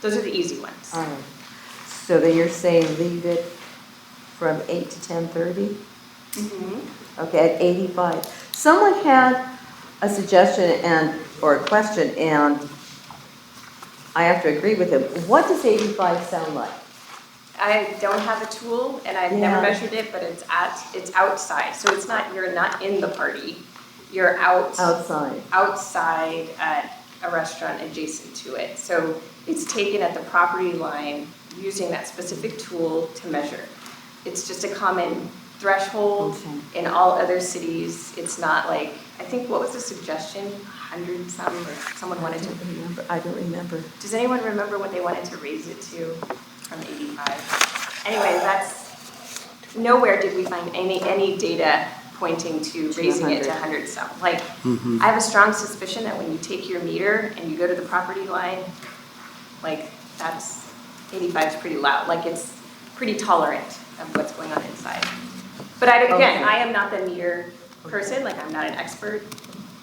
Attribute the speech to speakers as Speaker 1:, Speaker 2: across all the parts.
Speaker 1: Those are the easy ones.
Speaker 2: All right. Um, So then you're saying leave it from eight to ten thirty?
Speaker 1: Mhm.
Speaker 2: Okay, at eighty-five. Someone had a suggestion and, or a question, and I have to agree with him. What does eighty-five sound like?
Speaker 1: I don't have a tool and I've never
Speaker 2: Yeah.
Speaker 1: measured it, but it's at, it's outside, so it's not, you're not in the party. You're out,
Speaker 2: Outside,
Speaker 1: outside at a restaurant adjacent to it. So it's taken at the property line using that specific tool to measure. It's just a common threshold
Speaker 2: Okay.
Speaker 1: in all other cities. It's not like, I think, what was the suggestion? Hundred some, or someone wanted to
Speaker 2: remember, I don't remember.
Speaker 1: Does anyone remember what they wanted to raise it to from 85? Anyway, that's, nowhere did we find any, any data pointing to raising it to 100 some. Like, I have a strong suspicion that when you take your meter and you go to the property line, like, that's, 85 is pretty loud, like, it's pretty tolerant of what's going on inside. But I, again,
Speaker 2: Okay.
Speaker 1: I am not the meter person, like, I'm not an expert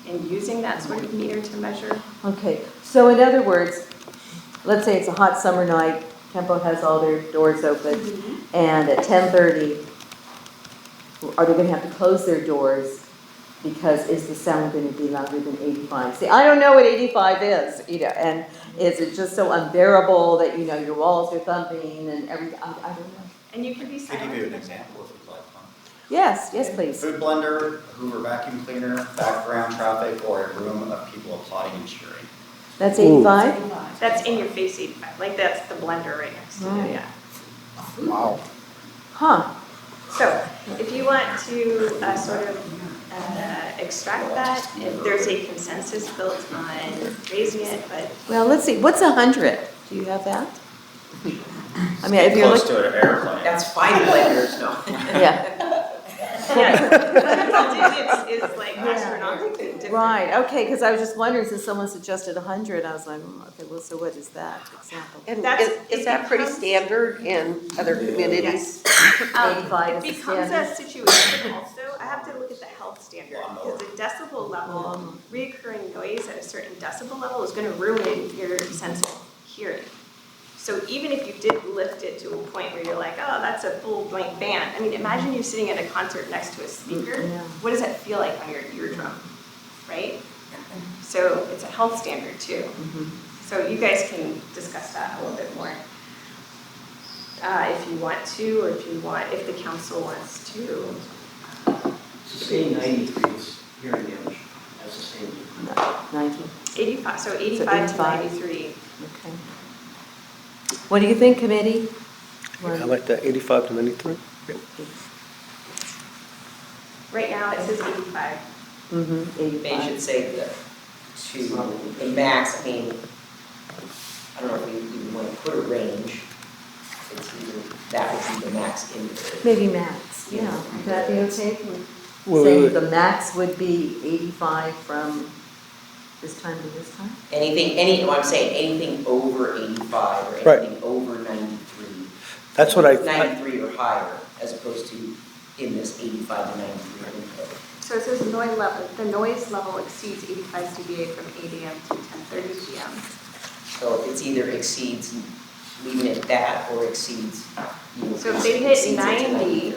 Speaker 1: in using that sort of meter to measure.
Speaker 2: Okay, so in other words, let's say it's a hot summer night, Tempo has all their doors open, and at ten thirty, are they gonna have to close their doors? Because is the sound gonna be louder than eighty-five? See, I don't know what eighty-five is, you know, and is it just so unbearable that, you know, your walls are thumping and everything, I, I don't know.
Speaker 1: And you can be
Speaker 3: I
Speaker 1: silent.
Speaker 3: can give you an example if you'd like one.
Speaker 2: Yes, yes, please.
Speaker 3: Food blender, Hoover vacuum cleaner, background traffic, or a room of people applauding and cheering.
Speaker 2: That's eighty-five?
Speaker 1: That's in your face eighty-five, like that's the blender right next to
Speaker 2: Right.
Speaker 1: it, yeah.
Speaker 3: Wow.
Speaker 2: Huh,
Speaker 1: So if you want to uh, sort of uh, extract that, if there's a consensus built on raising it, but
Speaker 2: well, let's see, what's a hundred? Do you have that? I mean, if you're
Speaker 3: Close
Speaker 2: looking,
Speaker 3: to an airplane.
Speaker 4: That's five players, no.
Speaker 2: yeah.
Speaker 1: yeah. It's, it's like astronomically different.
Speaker 2: Right, okay, because I was just wondering, since someone suggested hundred, I was like, "Mm, okay, well, so what is that example?
Speaker 5: And
Speaker 1: That's-
Speaker 5: is,
Speaker 1: it
Speaker 5: is that pretty
Speaker 1: becomes-
Speaker 5: standard in other communities?
Speaker 1: Um,
Speaker 2: 85 is
Speaker 1: It
Speaker 2: the
Speaker 1: becomes a
Speaker 2: standard.
Speaker 1: situation also, I have to look at the health standard,
Speaker 3: Lawnmower.
Speaker 1: because a decibel level, reoccurring noise at a certain decibel level is gonna ruin your sense of hearing. So even if you did lift it to a point where you're like, oh, that's a full blank band, I mean, imagine you're sitting at a concert next to a speaker,
Speaker 2: Mm, yeah.
Speaker 1: what does that feel like on your eardrum, right? So it's a health standard too. So you guys can discuss that a little bit more uh, if you want to, or if you want, if the council wants to.
Speaker 6: Sustained ninety degrees hearing damage as sustained.
Speaker 2: Ninety,
Speaker 1: Eighty-five, so eighty-five to
Speaker 2: 85.
Speaker 1: ninety-three.
Speaker 2: okay. What do you think, committee?
Speaker 7: I like that, 85 to 93.
Speaker 1: Right now, it says eighty-five.
Speaker 2: Mm-hmm,
Speaker 4: They should
Speaker 2: eighty-five.
Speaker 4: say the, to the max, I mean, I don't know if you even wanna put a range. It's either, that would be the max in the.
Speaker 2: Maybe max, yeah, would that be okay?
Speaker 7: Wait,
Speaker 2: Say
Speaker 7: wait,
Speaker 2: the max would be eighty-five from this time to this time?
Speaker 4: Anything, any, well, I'm saying, anything over eighty-five or
Speaker 7: Right.
Speaker 4: anything over ninety-three.
Speaker 7: That's what I- I,
Speaker 4: Ninety-three or higher, as opposed to in this eighty-five to ninety-three window.
Speaker 1: So it says noise level, the noise level exceeds eighty-five dBA from eight AM to ten thirty PM.
Speaker 4: So it's either exceeds, leaving it that, or exceeds, you know,
Speaker 1: So if they hit
Speaker 4: exceeds it to
Speaker 1: 90,
Speaker 4: 93.
Speaker 1: If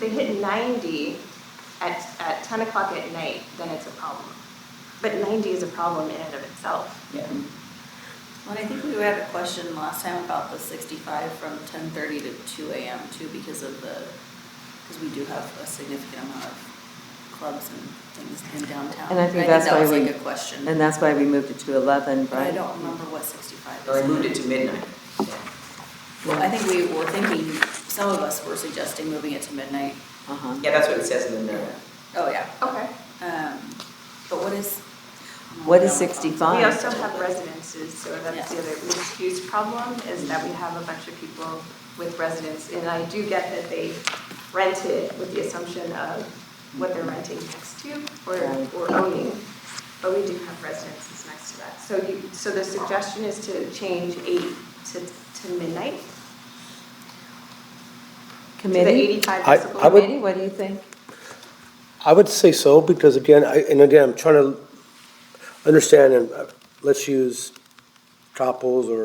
Speaker 1: they hit ninety at, at ten o'clock at night, then it's a problem. But ninety is a problem in and of itself.
Speaker 4: Yeah.
Speaker 8: Well, I think we had a question last time about the sixty-five from ten thirty to two AM too, because of the, because we do have a significant amount of clubs and things in downtown.
Speaker 2: And I think that's why
Speaker 8: that was
Speaker 2: we-
Speaker 8: like a question,
Speaker 2: And that's why we moved it to eleven,
Speaker 8: but I
Speaker 2: right?
Speaker 8: don't remember what sixty-five is.
Speaker 4: Or I moved it to midnight.
Speaker 8: Well, I think we were thinking, some of us were suggesting moving it to midnight.
Speaker 2: Uh-huh.
Speaker 4: Yeah, that's what it says in the note.
Speaker 8: Oh, yeah.
Speaker 1: Okay.
Speaker 8: Um, but what is?
Speaker 2: What is
Speaker 1: We
Speaker 2: 65?
Speaker 1: also have residences, so that's the
Speaker 8: Yeah.
Speaker 1: other mixed use problem, is that we have a bunch of people with residents. And I do get that they rent it with the assumption of what they're renting next to or,
Speaker 2: Right.
Speaker 1: or owning. But we do have residences next to that. So you, so the suggestion is to change eight to, to midnight, to the
Speaker 2: Committee?
Speaker 1: eighty-five
Speaker 7: I-
Speaker 1: decibel.
Speaker 7: I would-
Speaker 2: Committee, what do you think?
Speaker 7: I would say so, because again, I, and again, I'm trying to understand, and uh, let's use Chapels or